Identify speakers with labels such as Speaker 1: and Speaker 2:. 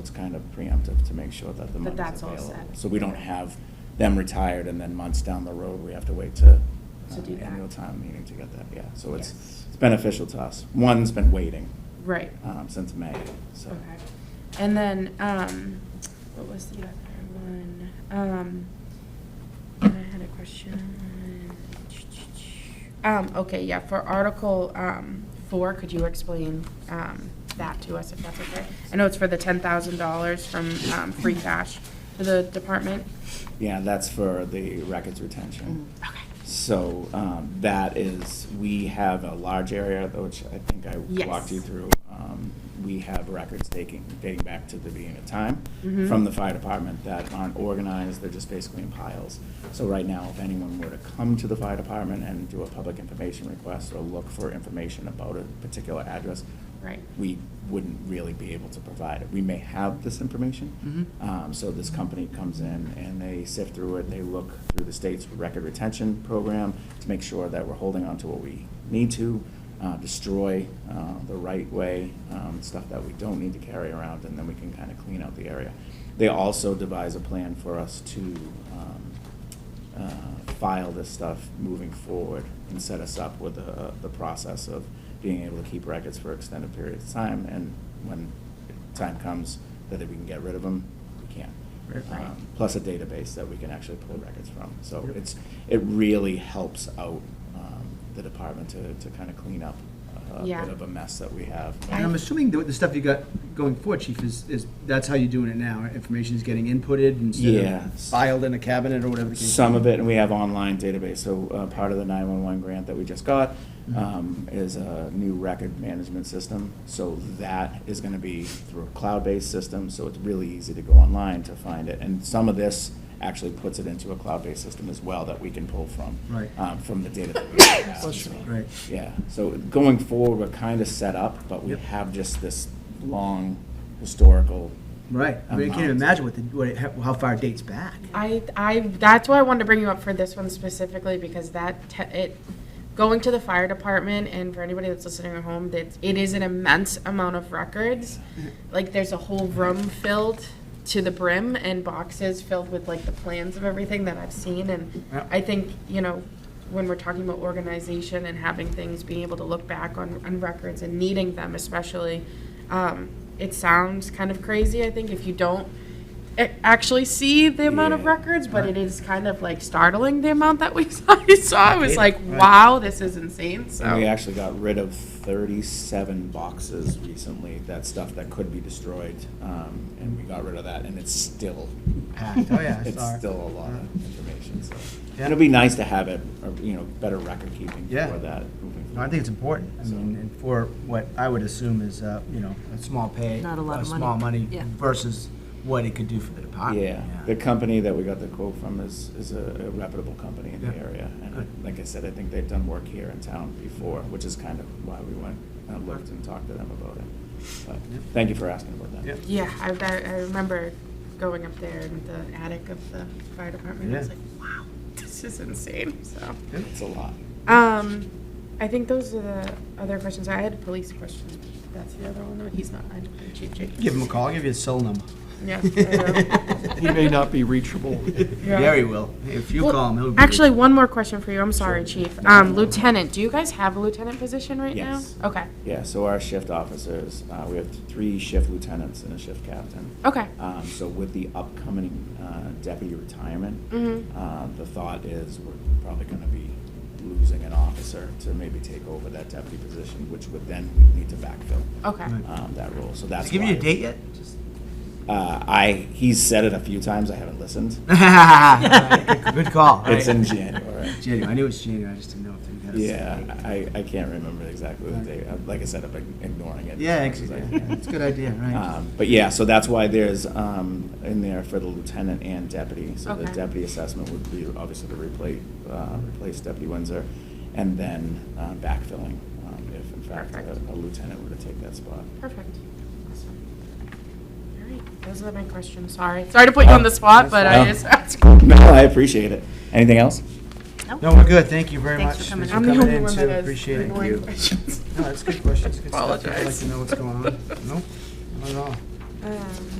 Speaker 1: It's kind of preemptive to make sure that the
Speaker 2: That
Speaker 1: money's
Speaker 2: that's all
Speaker 1: available.
Speaker 2: set.
Speaker 1: So we don't have them retired and then months down the road, we have to wait to.
Speaker 2: To
Speaker 1: uh,
Speaker 2: do that.
Speaker 1: Annual town meeting to get that, yeah. So it's,
Speaker 2: Yes.
Speaker 1: it's beneficial to us. One's been waiting,
Speaker 2: Right.
Speaker 1: um, since May, so.
Speaker 2: Okay. And then, um, what was the other one? Um, I had a question. Um, okay, yeah, for Article, um, four, could you explain, um, that to us if that's okay? I know it's for the ten thousand dollars from, um, free cash for the department.
Speaker 1: Yeah, that's for the records retention.
Speaker 2: Okay.
Speaker 1: So um, that is, we have a large area, which I think I
Speaker 2: Yes.
Speaker 1: walked you through. Um, We have records taking, dating back to the beginning of time
Speaker 2: Mhm.
Speaker 1: from the fire department that aren't organized, they're just basically in piles. So right now, if anyone were to come to the fire department and do a public information request or look for information about a particular address,
Speaker 2: Right.
Speaker 1: we wouldn't really be able to provide it. We may have this information.
Speaker 3: Mhm.
Speaker 1: Um, So this company comes in and they sift through it, they look through the state's record retention program to make sure that we're holding on to what we need to, uh, destroy uh, the right way, um, stuff that we don't need to carry around, and then we can kind of clean out the area. They also devise a plan for us to um, uh, file this stuff moving forward and set us up with uh, the, the process of being able to keep records for extended periods of time, and when time comes that we can get rid of them, we can.
Speaker 3: Right.
Speaker 1: Um, Plus a database that we can actually pull records from. So
Speaker 3: Yep.
Speaker 1: it's, it really helps out um, the department to, to kind of clean up a
Speaker 2: Yeah.
Speaker 1: bit of a mess that we have.
Speaker 3: And I'm assuming that the stuff you got going forward, chief, is, is, that's how you're doing it now. Information is getting inputted instead of
Speaker 1: Yes.
Speaker 3: filed in a cabinet or whatever. the case
Speaker 1: Some
Speaker 3: may
Speaker 1: of
Speaker 3: be.
Speaker 1: it, and we have online database, so uh, part of the 911 grant that we just got
Speaker 3: Mm-hmm.
Speaker 1: um, is a new record management system. So that is going to be through a cloud-based system, so it's really easy to go online to find it. And some of this actually puts it into a cloud-based system as well that we can pull from.
Speaker 3: Right.
Speaker 1: um, From the data. that we have.
Speaker 3: Right.
Speaker 1: Yeah, so going forward, we're kind of set up, but we
Speaker 3: Yep.
Speaker 1: have just this long historical.
Speaker 3: Right. I mean, I can't even
Speaker 1: amount.
Speaker 3: imagine what the, what, it- how far it dates back.
Speaker 2: I, I, that's why I wanted to bring you up for this one specifically, because that, te- it, going to the fire department, and for anybody that's listening at home, that it is an immense amount of records. Like, there's a whole room filled to the brim, and boxes filled with like the plans of everything that I've seen, and
Speaker 3: Yep.
Speaker 2: I think, you know, when we're talking about organization and having things, being able to look back on, on records and needing them especially, um, it sounds kind of crazy, I think, if you don't a- actually see the amount of
Speaker 1: Yeah.
Speaker 2: records, but it is kind of like startling the amount that we saw. I saw. I was like,
Speaker 3: Right.
Speaker 2: wow, this is insane. So
Speaker 1: And we actually got rid of thirty-seven boxes recently, that stuff that could be destroyed, um, and we got rid of that, and it's still.
Speaker 3: Packed. Oh, yeah, I
Speaker 1: It's
Speaker 3: saw it.
Speaker 1: still a lot of information, so.
Speaker 3: Yeah.
Speaker 1: It'd be nice to have it, or, you know, better record keeping for
Speaker 3: Yeah.
Speaker 1: that. moving
Speaker 3: No, I think it's important. I
Speaker 1: So-
Speaker 3: mean, and for what I would assume is, uh, you know, a small pay.
Speaker 4: Not a lot of money.
Speaker 3: small money
Speaker 4: Yeah.
Speaker 3: versus what it could do for the department.
Speaker 1: Yeah, the company that we got the quote from is, is a a reputable company in the
Speaker 3: Yeah.
Speaker 1: area.
Speaker 3: Good.
Speaker 1: And like I said, I think they've done work here in town before, which is kind of why we went and looked and talked to them about it. But,
Speaker 3: Yep.
Speaker 1: thank you for asking about that.
Speaker 3: Yep.
Speaker 2: yeah, I, I I remember going up there in the attic of the fire department. I was
Speaker 3: Yeah.
Speaker 2: like, wow, this is insane. So,
Speaker 1: It's a lot.
Speaker 2: um, I think those are the other questions. I had a police question. That's the other one. No, he's not. I'm Chief Jake.
Speaker 3: Give him a call, give you his cell number.
Speaker 2: Yeah. I will.
Speaker 4: He may not be reachable.
Speaker 3: Yeah, he will. If you
Speaker 2: Well,
Speaker 3: call him, he'll be.
Speaker 2: Actually, one more question for you. I'm sorry, Chief. Um, Lieutenant, do you guys have a lieutenant position right now?
Speaker 1: Yes.
Speaker 2: Okay,
Speaker 1: Yeah, so our shift officers, uh, we have three shift lieutenants and a shift captain.
Speaker 2: okay.
Speaker 3: Uh,
Speaker 1: Um, so with the upcoming, uh, deputy retirement,
Speaker 2: Mhm.
Speaker 1: uh, the thought is we're probably gonna be losing an officer to maybe take over that deputy position, which would then we need to backfill,
Speaker 2: Okay,
Speaker 3: Right.
Speaker 1: um, that role, so
Speaker 3: Has
Speaker 1: that's
Speaker 3: he given you a
Speaker 1: why-
Speaker 3: date yet?
Speaker 1: Uh, I, he's said it a few times, I haven't listened.
Speaker 3: Good call.
Speaker 1: It's in
Speaker 3: January.
Speaker 1: January.
Speaker 3: January. I knew it was January. I just didn't know if they had a
Speaker 1: Yeah,
Speaker 3: set date.
Speaker 1: I, I can't remember exactly the date. Uh, Like I said, I've been ignoring it.
Speaker 3: Yeah,
Speaker 1: as
Speaker 3: actually,
Speaker 1: much as I
Speaker 3: yeah,
Speaker 1: can.
Speaker 3: yeah, it's a good idea, right?
Speaker 1: Um, But yeah, so that's why there's um, in there for the lieutenant and deputy. So the
Speaker 2: Okay.
Speaker 1: deputy assessment would be obviously to replace, uh, replace Deputy Windsor, and then uh, backfilling um, if in fact a
Speaker 2: Perfect.
Speaker 1: a lieutenant were to take that spot.
Speaker 2: perfect. Awesome. All right, those are my questions, sorry. Sorry to put you on the spot, but I
Speaker 1: No.
Speaker 2: just asked.
Speaker 1: No, I appreciate it. Anything else?
Speaker 3: No, we're good. Thank you very much.
Speaker 4: Thanks for coming
Speaker 2: I'm the only
Speaker 3: in,
Speaker 2: one
Speaker 3: too.
Speaker 2: that has
Speaker 3: Appreciate it.
Speaker 2: annoying
Speaker 3: No,
Speaker 2: questions.
Speaker 3: that's good questions. Good stuff. People like
Speaker 2: Apologize.
Speaker 3: to know what's going on. No, not at all.
Speaker 2: Um,